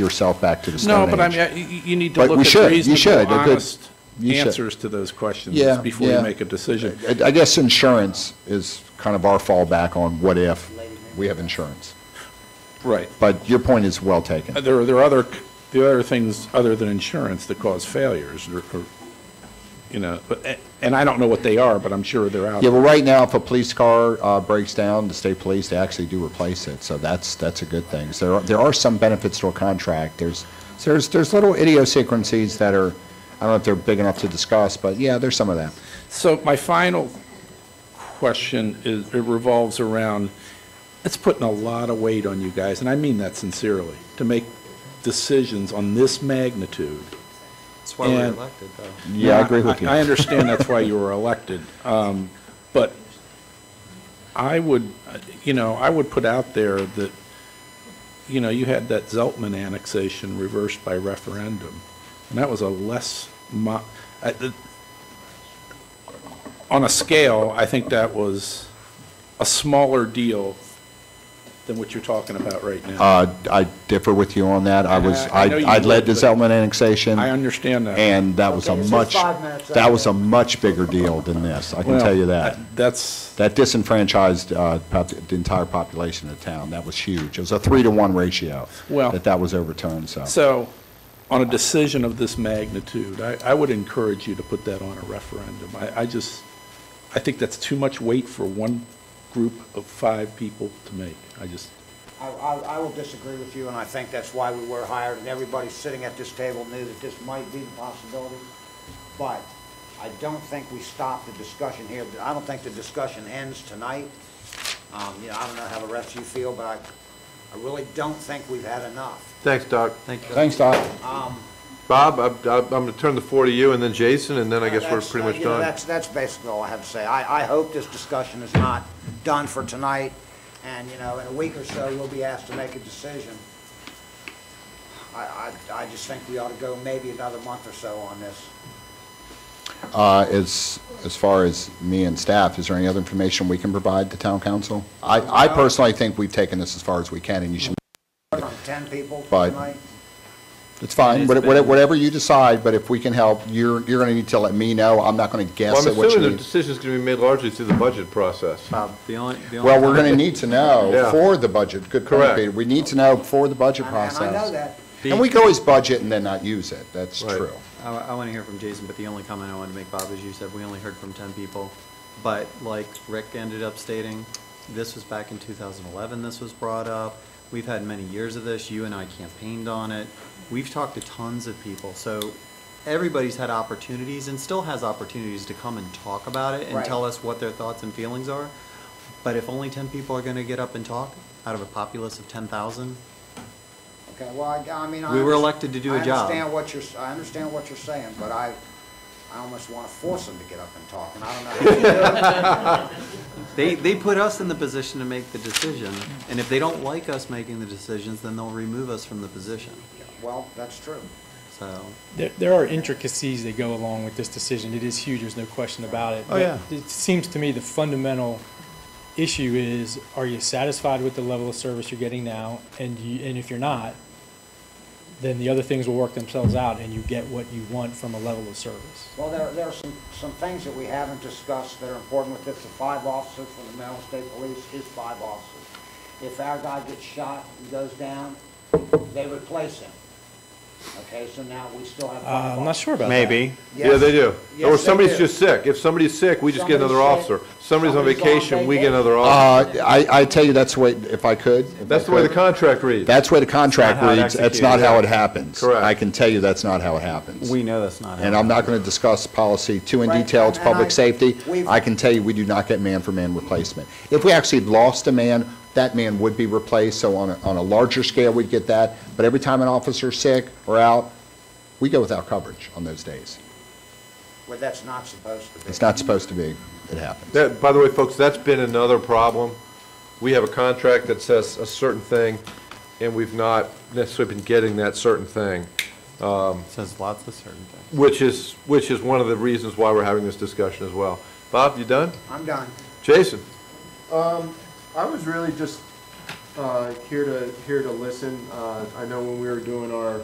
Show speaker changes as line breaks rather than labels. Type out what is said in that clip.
yourself back to the
No,
Stone
but I
Age.
mean, I- you you need to
But we
look
should, you
at
should, a
reasonable,
good-
honest
you should.
answers to those questions
Yeah,
before you
yeah.
make a decision.
I I guess insurance is kind of our fallback on what if we have insurance.
Right.
But your point is well taken.
There are, there are other, there are other things other than insurance that cause failures, or, or, you know, but- and I don't know what they are, but I'm sure they're out.
Yeah,
there.
well, right now, if a police car uh, breaks down, the state police, they actually do replace it, so that's, that's a good thing. So there are, there are some benefits to a contract, there's, so there's, there's little idiosyncrasies that are, I don't know if they're big enough to discuss, but yeah, there's some of that.
So my final question is, it revolves around, it's putting a lot of weight on you guys, and I mean that sincerely, to make decisions on this magnitude.
That's why we're
And-
elected, though.
Yeah, I agree with you.
I understand that's why you were elected, um, but I would, uh, you know, I would put out there that, you know, you had that Zeltman annexation reversed by referendum, and that was a less, mo- I- the- on a scale, I think that was a smaller deal than what you're talking about right now.
Uh, I differ with you on that, I was,
And I- I know
I
you
I led the
would, but-
Zeltman annexation.
I understand that.
Um, And that was a
Okay, so
much,
five minutes,
that was a
okay.
much bigger deal than this, I can tell you that.
Well, That's,
That disenfranchised uh, pop- the entire population of the town. That was huge. It was a three-to-one ratio
Well-
that that was overturned, so.
So, on a decision of this magnitude, I, I would encourage you to put that on a referendum. I, I just, I think that's too much weight for one group of five people to make. I just,
I, I I will disagree with you, and I think that's why we were hired, and everybody sitting at this table knew that this might be the possibility. But I don't think we stop the discussion here. I don't think the discussion ends tonight. Um, you know, I don't know how the rest of you feel, but I, I really don't think we've had enough.
Thanks, Doc. Thank
Thanks, Doc.
Bob, I'm, I'm going to turn the floor to you, and then Jason, and then I guess we're
That's-
pretty
uh,
much
you know,
done.
That's, that's basically all I have to say. I, I hope this discussion is not done for tonight, and, you know, in a week or so, we'll be asked to make a decision. I, I, I just think we ought to go maybe another month or so on this.
Uh, As, as far as me and staff, is there any other information we can provide to town council? I, I personally think we've taken this as far as we can, and you should,
From ten people
Right.
tonight.
it's fine, What- what- whatever you decide, but if we can help, you're, you're going to need to let me know. I'm not going to
Well,
guess
I'm
at what you
assuming the
need.
decision's going to be made largely through the budget process.
Bob, the only, the only.
Well, we're going to
comment-
need to know
Yeah.
for the budget, good point,
Correct.
Peter. We need to know for the budget
And and
process.
I know that.
And we can always budget and then not use it, that's
Right.
true.
I, want to hear from Jason, but the only comment I wanted to make, Bob, is you said we only heard from ten people. But like Rick ended up stating, this was back in two thousand eleven, this was brought up. We've had many years of this. You and I campaigned on it. We've talked to tons of people, so everybody's had opportunities and still has opportunities to come and talk about it and
Right.
tell us what their thoughts and feelings are. But if only ten people are going to get up and talk out of a populace of ten thousand,
Okay, well, I, I mean, I.
We were
underst-
elected to do a
I
job.
understand what you're, s- I understand what you're saying, but I, I almost wanna force them to get up and talk, and I don't know how to do that.
They, they put us in the position to make the decision, and if they don't like us making the decisions, then they'll remove us from the position.
Well, that's true.
So,
There, there are intricacies that go along with this decision. It is huge, there's no question about it.
Oh, yeah.
But It seems to me the fundamental issue is, are you satisfied with the level of service you're getting now? And you, and if you're not, then the other things will work themselves out and you get what you want from a level of service.
Well, there, there are some, some things that we haven't discussed that are important with this. The five officers for the Maryland State Police is five officers. If our guy gets shot and goes down, they replace him. Okay, so now we still have
Uh,
five
I'm not
officers.
sure about that.
Yeah, they do.
Yes,
Or
they
somebody's
do.
just sick. If somebody's sick, we just get another
Somebody's sick.
officer. Somebody's on
Somebody's on
vacation, we get
vacation.
another officer.
Uh, I, I tell you, that's the way, if I could. if I
That's the way the
could,
contract reads.
That's the way the contract
It's not how it
reads, that's
executed,
not how
yeah.
it happens.
Correct.
I can tell you that's not how it happens.
we know that's not
And I'm not going to discuss policy two in
Right,
detail, it's
and- and
public
I-
safety.
we've-
I can tell you, we do not get man-for-man replacement. If we actually lost a man, that man would be replaced, so on a, on a larger scale, we'd get that. But every time an officer's sick or out, we go without coverage on those days.
Well, that's not supposed to be.
It's not supposed to be, it happens.
That, by the way, folks, that's been another problem. We have a contract that says a certain thing, and we've not necessarily been getting that certain thing,
Says lots of certain things.
which is, which is one of the reasons why we're having this discussion as well. Bob, you done?
I'm done.
Jason?
I was really just uh, here to, here to listen. Uh, I know when we were doing our